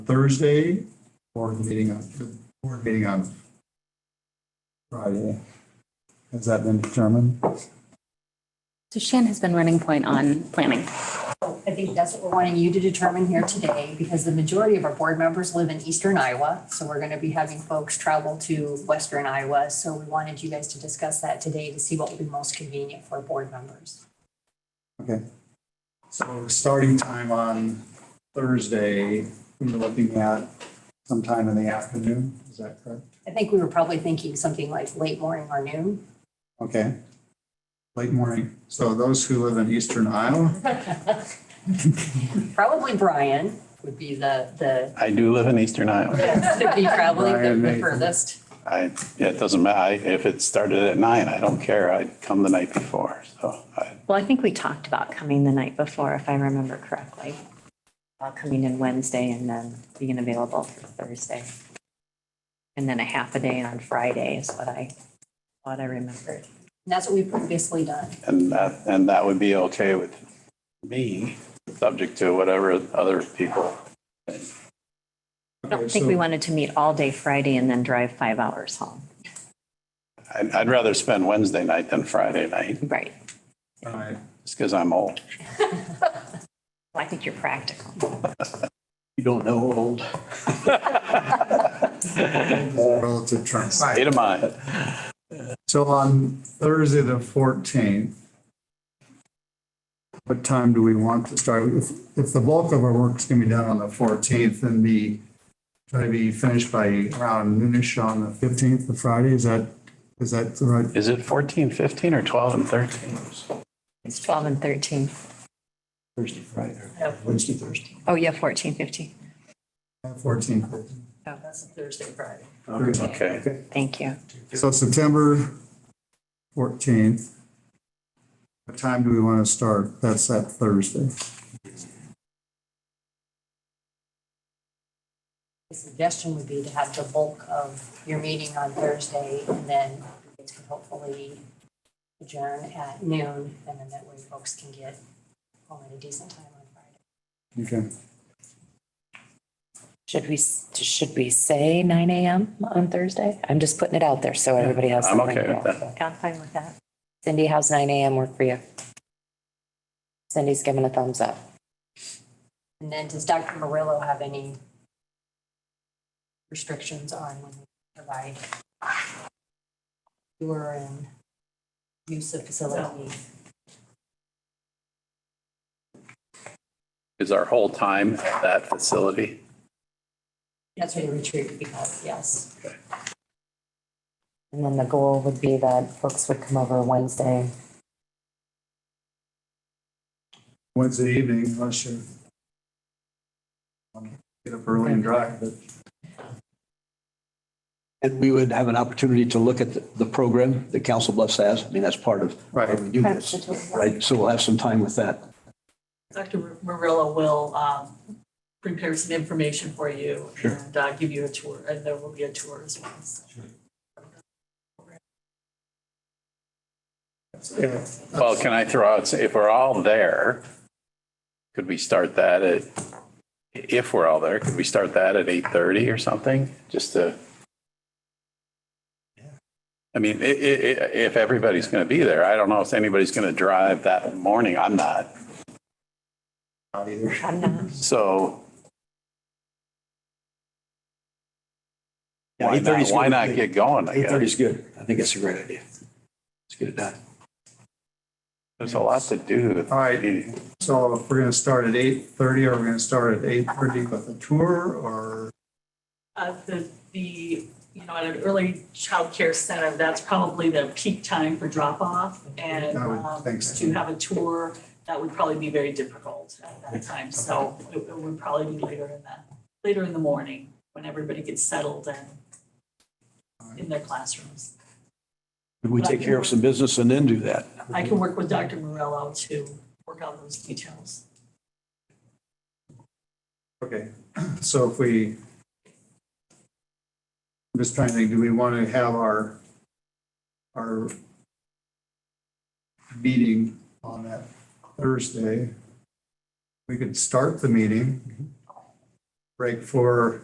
Thursday or the meeting on, the board meeting on Friday. Has that been determined? So Shan has been running point on planning. I think that's what we're wanting you to determine here today, because the majority of our board members live in eastern Iowa. So we're going to be having folks travel to western Iowa. So we wanted you guys to discuss that today to see what would be most convenient for board members. Okay. So starting time on Thursday, we were looking at sometime in the afternoon, is that correct? I think we were probably thinking something like late morning or noon. Okay. Late morning. So those who live in eastern Iowa, Probably Brian would be the, the, I do live in Eastern Iowa. would be traveling Brian, the- the Nathan. furthest. I, yeah, it doesn't matter. I- If it started at nine, I don't care. I'd come the night before. So I, Well, I think we talked about coming the night before, if I remember correctly. About coming in Wednesday and then being available for Thursday. And then a half a day on Friday is what I, what I remembered. And that's what we've previously done. and that, and that would be okay with me, subject to whatever other people. I don't think we wanted to meet all day Friday and then drive five hours home. I'd, I'd rather spend Wednesday night than Friday night, Right. all right, just because I'm old. Well, I think you're practical. You don't know old. uh, relative terms. State of mind. So on Thursday, the fourteenth, what time do we want to start? If, if the bulk of our work's gonna be done on the fourteenth and be, try to be finished by around noonish on the fifteenth, the Friday, is that, is that the right? Is it 14, 15, or 12 and 13? It's 12 and 13. Thursday, Friday, Wednesday, Thursday. Oh, yeah, 14, 15. Fourteenth. Oh, That's Thursday, Friday. Okay. Thank you. So September fourteenth. What time do we want to start? That's that Thursday. The suggestion would be to have the bulk of your meeting on Thursday and then it could hopefully adjourn at noon and then that way folks can get home at a decent time on Friday. Okay. Should we, s- should we say nine AM on Thursday? I'm just putting it out there so everybody has I'm something. okay with that. Yeah, I'm fine with that. Cindy, how's nine AM work for you? Cindy's giving a thumbs up. And then does Dr. Murillo have any restrictions on when we provide tour and use of facilities? Is our whole time at that facility? That's what a retreat would be called, yes. And then the goal would be that folks would come over Wednesday. Wednesday evening, unless you get up early and drive, but And we would have an opportunity to look at the- the program that Council Bluffs has. I mean, that's part of why we do this, right? So we'll have some time with that. Dr. Marilla will um, prepare some information for you and uh, give you a tour, and there will be a tour as well. so. Well, can I throw out, if we're all there, could we start that at, if we're all there, could we start that at eight thirty or something, just to? I mean, i- i- i- if everybody's gonna be there, I don't know if anybody's gonna drive that morning, I'm not, not either. I'm not. so. Yeah, Why 8:30 not, 's why good. not get going, I Eight guess? thirty is good. I think it's a great idea. Let's get it done. There's a lot to do. All right. So if we're gonna start at eight thirty, are we gonna start at eight thirty with a tour or? Uh, The, the, you know, at an early childcare center, that's probably the peak time for drop-off. And I would um, think so. to have a tour, that would probably be very difficult at that time. So it it would probably be later in the, later in the morning, when everybody gets settled and in their classrooms. Would we take care of some business and then do that? I can work with Dr. Morello to work out those details. Okay, so if we, I'm just trying to think, do we want to have our, our meeting on that Thursday? We could start the meeting break for